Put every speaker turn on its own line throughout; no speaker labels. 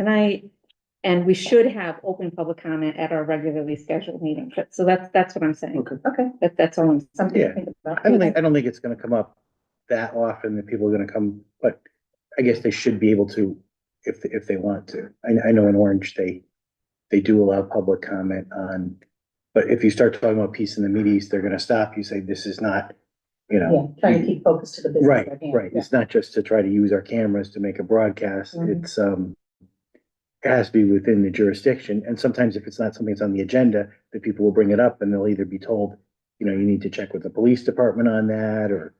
tonight. And we should have open public comment at our regularly scheduled meeting. But- So that's, that's what I'm saying.
Okay.
Okay,
That, that's all I'm saying.
something
Yeah.
to think about.
I don't think, I don't think it's gonna come up that often that people are gonna come, but I guess they should be able to if, if they want to. I, I know in Orange, they, they do allow public comment on, but if you start talking about peace in the Middle East, they're gonna stop you, say, this is not, you
Yeah,
know.
trying to keep focus to the business.
Right,
at hand.
right.
Yeah.
It's not just to try to use our cameras to make a broadcast.
Mhm.
It's, um, it has to be within the jurisdiction. And sometimes if it's not something that's on the agenda, the people will bring it up and they'll either be told, you know, you need to check with the police department on that, or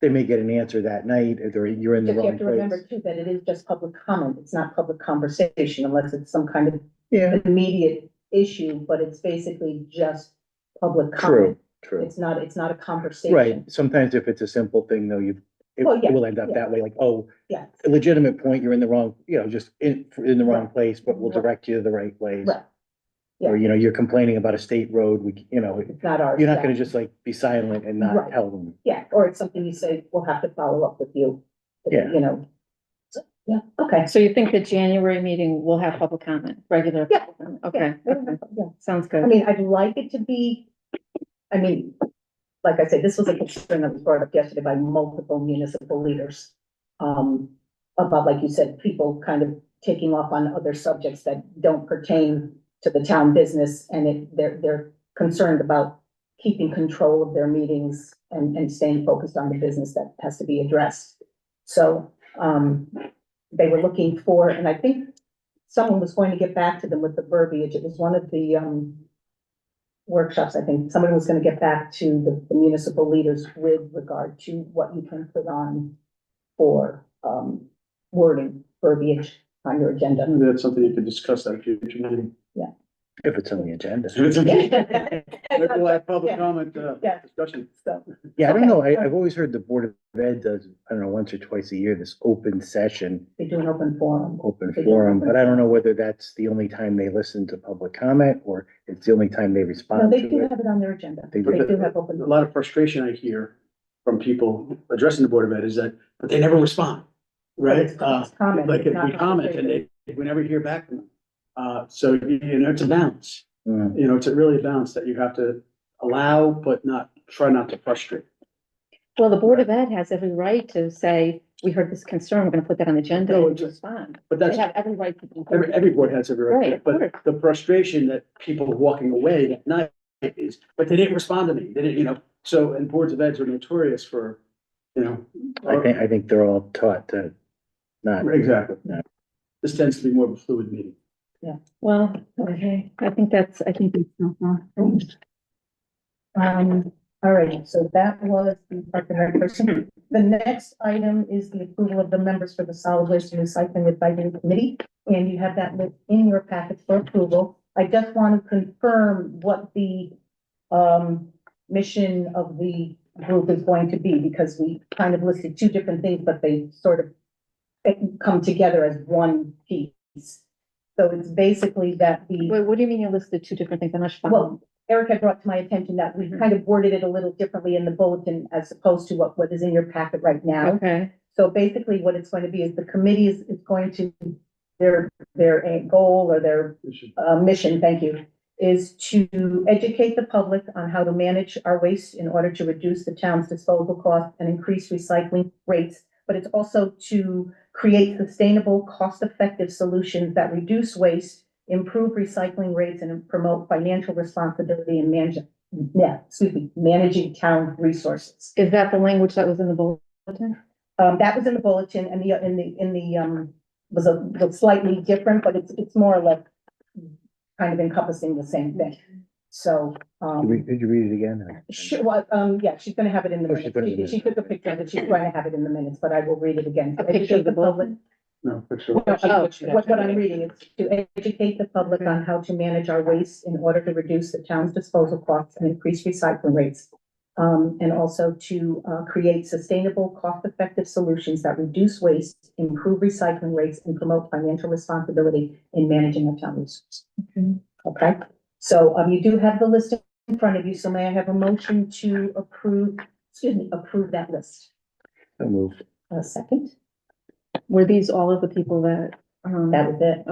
they may get an answer that night, or they're- you're in the
Just you
wrong
have to remember
place.
too, that it is just public comment. It's not public conversation unless it's some kind of
Yeah,
immediate issue, but it's basically just public
true,
comment.
true.
It's not, it's not a conversation.
Right. Sometimes if it's a simple thing, though, you, it
Well, yeah,
it will end up
yeah.
that way, like, oh,
Yeah,
a legitimate point, you're in the wrong, you know, just in, in the wrong place, but we'll
Right.
direct you to the right place.
right.
Or, you know, you're complaining about a state road, we, you know,
It's not ours.
you're not
yeah.
gonna just like be silent and not
Right.
tell them.
Yeah, or it's something you say, we'll have to follow up with you.
Yeah.
You know. So, Yeah, okay.
So you think the January meeting will have public comment, regular?
Yeah.
public comment? Okay,
Yeah,
okay.
Yeah,
sounds
I
good.
mean, I'd like it to be, I mean, like I said, this was a concern that was brought up yesterday by multiple municipal leaders. Um, about, like you said, people kind of taking off on other subjects that don't pertain to the town business. And it, they're, they're concerned about keeping control of their meetings and, and staying focused on the business that has to be addressed. So, um, they were looking for, and I think someone was going to get back to them with the verbiage. It was one of the, um, workshops, I think. Somebody was gonna get back to the- the municipal leaders with regard to what you can put on for, um, wording, verbiage on your agenda.
Maybe that's something you could discuss at a future meeting.
If it's on the agenda.
Maybe we'll have public
Yeah.
comment, uh,
Yeah.
discussion.
So,
Yeah, I don't
Okay.
know. I, I've always heard the Board of Ed does, I don't know, once or twice a year, this open session,
they do an open forum.
open
They do
forum,
open
but I don't know whether that's the only time they listen to public comment or it's the only time they
No,
respond
they do
to it.
have it on their agenda.
They
They
do.
do have
A
open.
lot of frustration I hear from people addressing the Board of Ed is that, but they never respond, right?
It's
Uh,
comment,
Like if
not
we comment and they, we never hear back from them. Uh, so, you you know, it's a balance,
Mm.
you know, it's a really a balance that you have to allow, but not, try not to frustrate.
Well, the Board of Ed has every right to say, we heard this concern, we're gonna put that on the agenda
No,
and
it's-
respond.
But
They
that's,
have every right to. do that.
every, every board has every
Right,
right,
of
but
course.
the frustration that people are walking away that night is, but they didn't respond to me, they didn't, you know, so, and boards of eds are notorious for, you know.
I think, I think they're all taught to not,
Exactly.
Yeah.
This tends to be more of a fluid meeting.
Well, okay, I think that's, I think. that's-
Um, all right, so that was the Park and Rec person. The next item is the approval of the members for the solid waste and recycling advisory committee. And you have that list in your packet for approval. I just want to confirm what the um mission of the group is going to be because we kind of listed two different things, but they sort of they can come together as one piece. So it's basically that the.
Wait, what do you mean you listed two different things? I'm not sure.
Well, Um, Eric had brought to my attention that we
Mhm.
kind of worded it a little differently in the bulletin as opposed to what, what is in your packet right now.
Okay,
So basically what it's going to be is the committee is, is going to, their, their eh, goal or their
We should-
uh, mission, thank you, is to educate the public on how to manage our waste in order to reduce the town's disposal cost and increase recycling rates. But it's also to create sustainable, cost-effective solutions that reduce waste, improve recycling rates, and promote financial responsibility in managing, yeah, excuse me, managing town resources.
is that the language that was in the bulletin?
Um, that was in the bulletin and the, in the, in the, um, was a, was slightly different, but it's, it's more or less kind of encompassing the same thing. So,
did we-
um,
did you read it again?
she, well, um, yeah, she's gonna have it in the
Oh, she's
minutes.
putting it in
She, she took a picture of it. She's gonna have it in the minutes, but I will read it again.
A picture of the
public.
bulletin?
No, for sure.
Well, uh,
she-
What, what I'm reading is to educate the public on how to manage our waste in order to reduce the town's disposal costs and increase recycling rates. Um, and also to, uh, create sustainable, cost-effective solutions that reduce waste, improve recycling rates, and promote financial responsibility in managing our town resources.
Okay.
Okay, so, um, you do have the list in front of you, so may I have a motion to approve, excuse me, approve that list?
I moved.
A second?
Were these all of the people that Um,
That was it.